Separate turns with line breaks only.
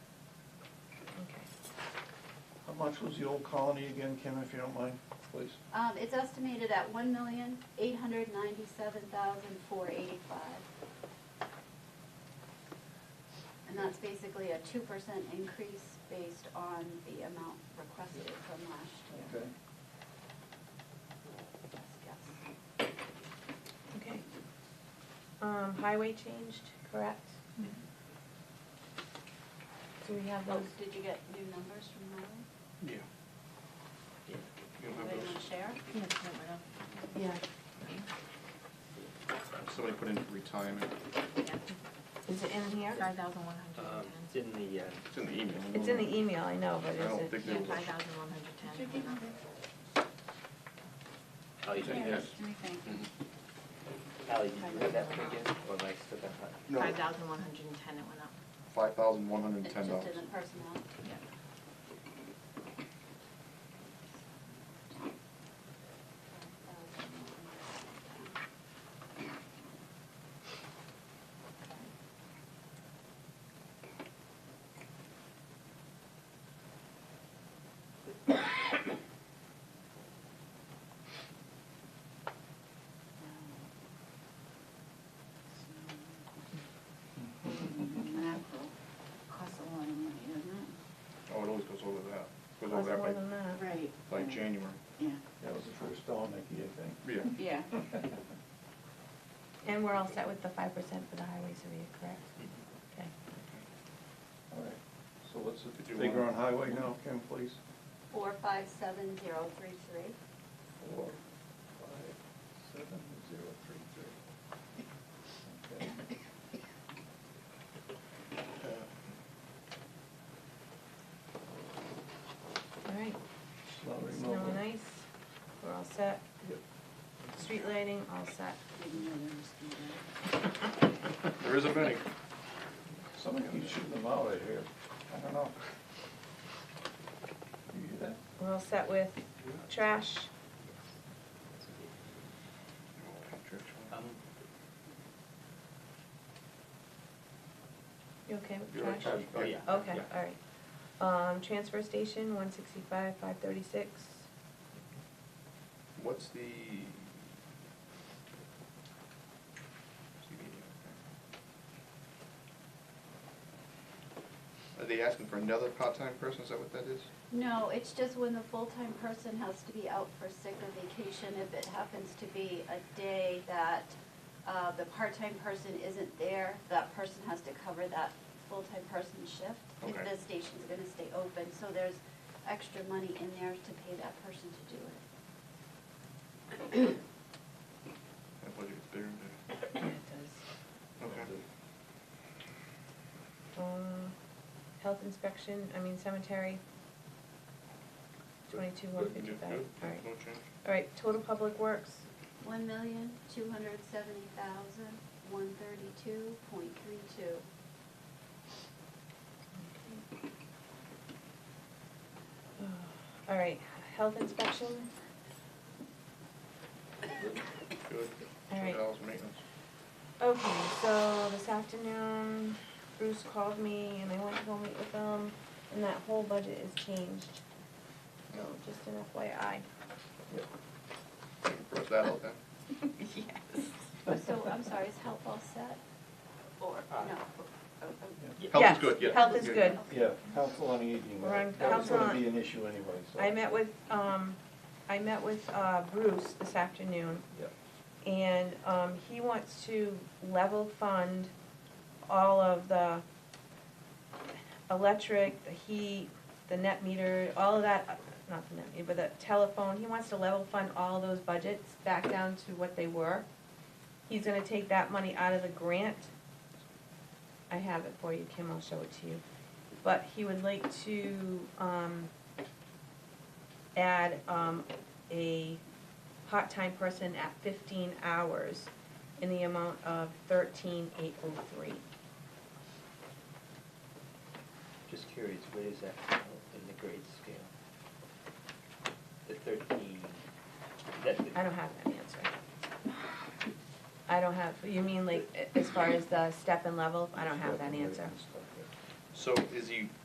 much was the old colony again, Kim, if you don't mind, please?
Um, it's estimated at one million, eight hundred ninety-seven thousand, four eighty-five. And that's basically a two percent increase based on the amount requested from last year.
Okay.
Best guess.
Okay. Um, highway changed, correct? Do we have
Oh,
those?
did you get new numbers from Mylan?
Yeah.
Yeah.
Anybody want to share?
Yeah.
Uh,
Somebody put in retirement,
Is it in here?
Five thousand one hundred
Um,
and
It's in the, uh,
it's in the email. I
It's in
don't-
the e- email, I know, but
I
is
don't
it?
think
ten.
there
Yeah,
was.
five thousand one hundred and ten.
oh, you didn't have,
Let me think.
Ally, did you have that one again, or am I still got that?
Five
No,
thousand one hundred and ten, it went up.
five thousand one hundred and
It's
ten
just
dollars.
in the personnel.
Mm-hmm.
Mackerel costs a lot of money, doesn't
Oh, it always goes over that, goes
Costs
over
more
that
than that.
it? Right.
by, by January,
Yeah,
That was the first Don Mickey, I
yeah.
yeah.
think.
And we're all set with the five percent for the highway survey, correct? Okay.
Mm-hmm.
All right, so what's
Did
the
you
figure on
want-
highway now, Kim, please?
Four five seven zero three three.
Four, five, seven, zero, three, three. Okay.
All right.
Snow
Snow
removal.
and ice, we're all set.
Yep.
Street lighting, all set.
Didn't know there was gonna be
There isn't many.
Somebody keeps shooting them out right here, I don't know. You hear that?
We're all set with trash.
Um,
You okay with
You're all
trash?
set.
Oh, yeah.
Okay,
yeah.
all right. Um, transfer station, one sixty-five, five thirty-six.
What's the? Are they asking for another part-time person, is that what that is?
No, it's just when the full-time person has to be out for sick or vacation, if it happens to be a day that uh, the part-time person isn't there, that person has to cover that full-time person's shift. If
Okay.
the station's gonna stay open, so there's extra money in there to pay that person to do it.
That budget is bigger than
Yeah, it does.
that. Okay.
Um, health inspection, I mean cemetery. Twenty-two, one
Good, good,
fifty-five,
good.
all right.
No change.
All right, total public works,
One million, two hundred seventy thousand, one thirty-two point three two.
all right. Health inspection,
Good.
All right.
Two dollars maintenance.
Okay, so this afternoon Bruce called me and I went to go meet with him and that whole budget is changed. So just an FYI.
Brush that out then.
Yes.
So, I'm sorry, is help all set? Or, no? Oh, oh.
Health
Yes,
is good, yeah.
Health is good.
Yeah, council on aging,
We're on
that was gonna
council on-
be an issue anyway, so.
I met with, um, I met with, uh, Bruce this afternoon
Yep.
and, um, he wants to level fund all of the electric, the heat, the net meter, all of that, uh, not the net meter, but the telephone, he wants to level fund all those budgets back down to what they were. He's gonna take that money out of the grant. I have it for you, Kim, I'll show it to you. But he would like to, um, add, um, a part-time person at fifteen hours in the amount of thirteen eight oh three.
Just curious, where is that in the grade scale? The thirteen, is that the?
I don't have that answer. I don't have, you mean like, a- as far as the step and level, I don't have that answer.
So is he